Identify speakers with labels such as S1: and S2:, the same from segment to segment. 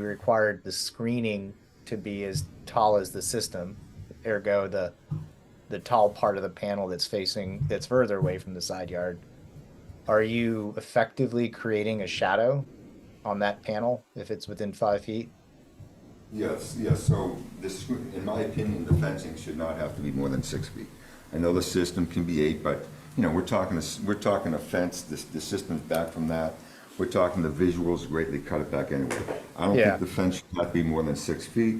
S1: we required the screening to be as tall as the system, ergo the the tall part of the panel that's facing that's further away from the side yard. Are you effectively creating a shadow on that panel if it's within five feet?
S2: Yes, yes, so this, in my opinion, the fencing should not have to be more than six feet. I know the system can be eight, but, you know, we're talking, a s- we're talking a fence, this, the system's back from that. We're talking the visuals greatly cut it back anyway. I don't
S1: Yeah.
S2: think the fence should not be more than six feet.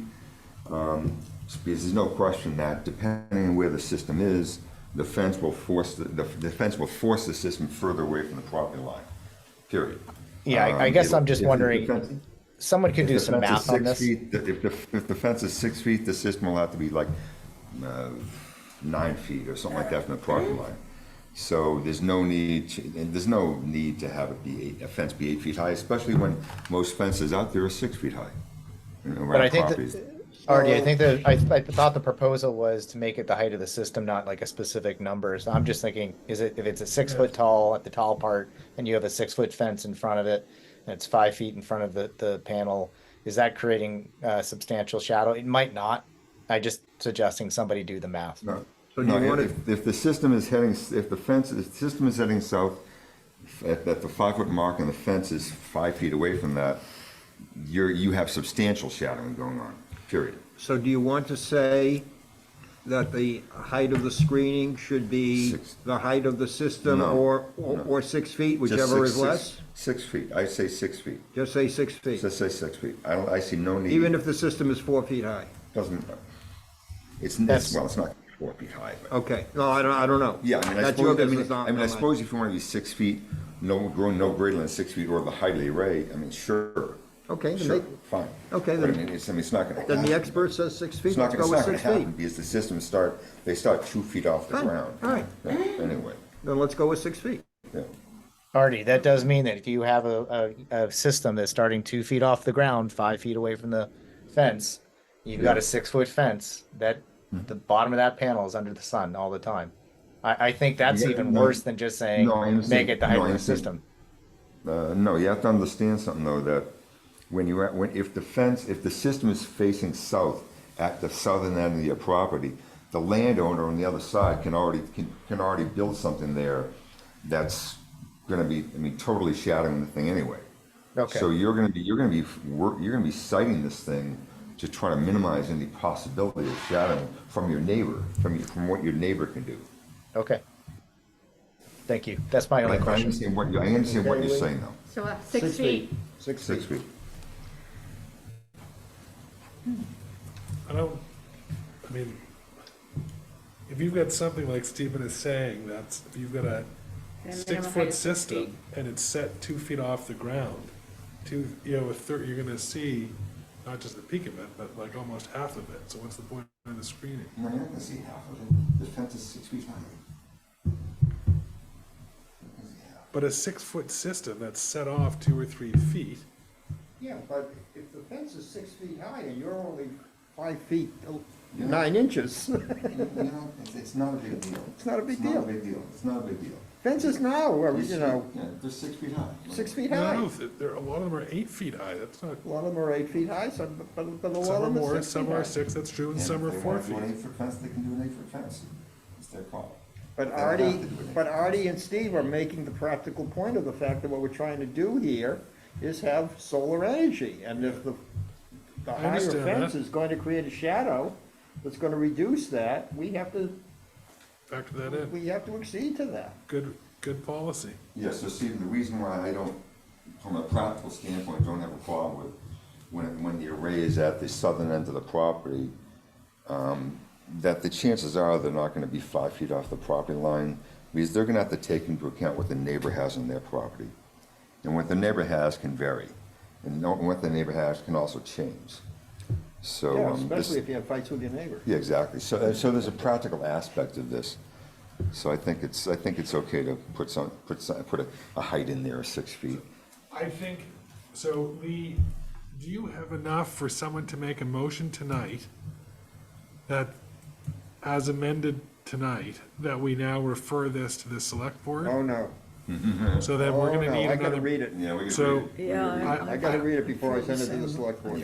S2: um, Because there's no question that depending on where the system is, the fence will force, the, the the fence will force the system further away from the property line, period.
S1: Yeah, I- I
S2: Um,
S1: guess
S2: if-
S1: I'm just
S2: if the
S1: wondering-
S2: fence-
S1: Someone could do
S2: if the
S1: some
S2: fence is
S1: math on
S2: six
S1: this.
S2: feet, th- If the, if the fence is six feet, the system will have to be like uh, nine feet or something like that from the property line. So there's no need, to- and there's no need to have it be, eight- a fence be eight feet high, especially when most fences out there are six feet high. you know,
S1: But I
S2: around
S1: think
S2: properties.
S1: that, Artie, I think that I, I thought the proposal was to make it the height of the system, not like a specific number. So I'm just thinking, is it if it's a six foot tall at the tall part, and you have a six foot fence in front of it, and it's five feet in front of the the panel, is that creating uh, substantial shadow? It might not. I just suggesting somebody do the math.
S2: No.
S3: So do you
S2: No,
S3: want
S2: if- If the system is heading, s- if the fence, if the system is heading south, at, at the five-foot mark and the fence is five feet away from that, you're, you have substantial shadowing going on, period.
S3: So do you want to say that the height of the screening should be
S2: Six.
S3: the height of the system
S2: No,
S3: or, or
S2: no.
S3: or six feet,
S2: Just
S3: whichever
S2: six-
S3: is
S2: six-
S3: less?
S2: Six feet, I say six feet,
S3: Just say six feet,
S2: just say six feet, I don't, I see no need.
S3: even if the system is four feet high.
S2: Doesn't, it's,
S1: That's-
S2: it's, well, it's not four feet high, but.
S3: Okay, no, I don't, I don't know.
S2: Yeah, I mean, I
S3: That's your
S2: suppose, I
S3: business,
S2: mean,
S3: not-
S2: I mean, I
S3: not mine.
S2: suppose if you want to be six feet, no, grow no greater than six feet or the height of the array, I mean, sure.
S3: Okay, then
S2: Sure,
S3: make-
S2: fine.
S3: okay,
S2: But I
S3: then-
S2: mean, it's, I mean, it's not gonna
S3: Then the
S2: happen.
S3: expert says six feet,
S2: It's not
S3: let's
S2: gonna,
S3: go
S2: it's not
S3: with
S2: gonna
S3: six
S2: happen
S3: feet.
S2: because the systems start, they start two feet off the
S3: Fine,
S2: ground.
S3: all right.
S2: Yeah, Anyway,
S3: Then let's go with six feet.
S2: yeah.
S1: Artie, that does mean that if you have a, a, a system that's starting two feet off the ground, five feet away from the fence, you've got a six foot fence that
S2: Mm-hmm.
S1: the bottom of that panel is under the sun all the time. I, I think that's
S2: Yeah,
S1: even
S2: no.
S1: worse than just saying
S2: No, I
S1: make
S2: understand.
S1: it the height
S2: No, I
S1: of the
S2: understand.
S1: system.
S2: Uh, no, you have to understand something though, that when you, are- when, if the fence, if the system is facing south at the southern end of your property, the landowner on the other side can already, can, can already build something there that's gonna be, I mean, totally shadowing the thing anyway.
S1: Okay.
S2: So you're gonna be, you're gonna be, wor- you're gonna be citing this thing to try to minimize any possibility of shadowing from your neighbor, from your, from what your neighbor can do.
S1: okay. Thank you. That's my
S2: I
S1: only question.
S2: understand what, you- I understand what you're saying though,
S4: So uh, six feet.
S3: Six
S2: six
S3: feet.
S2: feet.
S5: I don't, I mean, if you've got something like Stephen is saying, that's, if you've got a
S4: minimum height
S5: six-foot
S4: of six
S5: system and it's set two feet off the ground, two, you know, a third, you're gonna see not just the peak of it, but like almost half of it, so what's the point of the screening?
S2: No, you're not gonna see half of it. The fence is six feet high.
S5: But a six-foot system that's set off two or three feet,
S3: Yeah, but if the fence is six feet high and you're only five feet, nine inches,
S2: You know, it's, it's not a big deal.
S3: It's not a big
S2: It's
S3: deal.
S2: not a big deal. It's not a big deal.
S3: fences now, are, you know,
S2: Yeah, they're six feet high.
S3: six feet high.
S5: no, th- there, a lot of them are eight feet high, that's not,
S3: A lot of them are eight feet high, some, but, but a lot
S5: some are
S3: of them
S5: more,
S3: are six feet
S5: some are
S3: high.
S5: six, that's true, and
S2: And if
S5: some are
S2: they wanna
S5: four
S2: do an
S5: feet.
S2: eight-foot fence, they can do an eight-foot fence. It's their call. They
S3: But
S2: don't have to
S3: Artie,
S2: do an eight-foot
S3: but Artie and Steve are making the practical point of the fact that what we're trying to do here is have solar energy, and if the, the higher
S5: understand that.
S3: fence is going to create a shadow that's gonna reduce that, we have to,
S5: Factor that in,
S3: we have to accede to that.
S5: good, good policy.
S2: Yeah, so Stephen, the reason why I don't, from a practical standpoint, don't have a problem with when, when the array is at the southern end of the property, um, that the chances are they're not gonna be five feet off the property line, because they're gonna have to take into account what the neighbor has on their property. And what the neighbor has can vary, and no- what the neighbor has can also change. So, um,
S3: Yeah,
S2: this,
S3: especially if you have fights with your neighbor.
S2: yeah, exactly. So, uh, so there's a practical aspect of this. So I think it's, I think it's okay to put some, put some, put a, a height in there of six feet.
S5: I think, so Lee, do you have enough for someone to make a motion tonight that, as amended tonight, that we now refer this to the select board?
S3: no.
S5: So then
S3: Oh,
S5: we're gonna
S3: no,
S5: need
S3: I gotta
S5: another.
S3: read it.
S2: Yeah, we could.
S5: So-
S3: Oh,
S2: read it.
S4: Yeah,
S5: I-
S3: I gotta read it before I send it to the select board.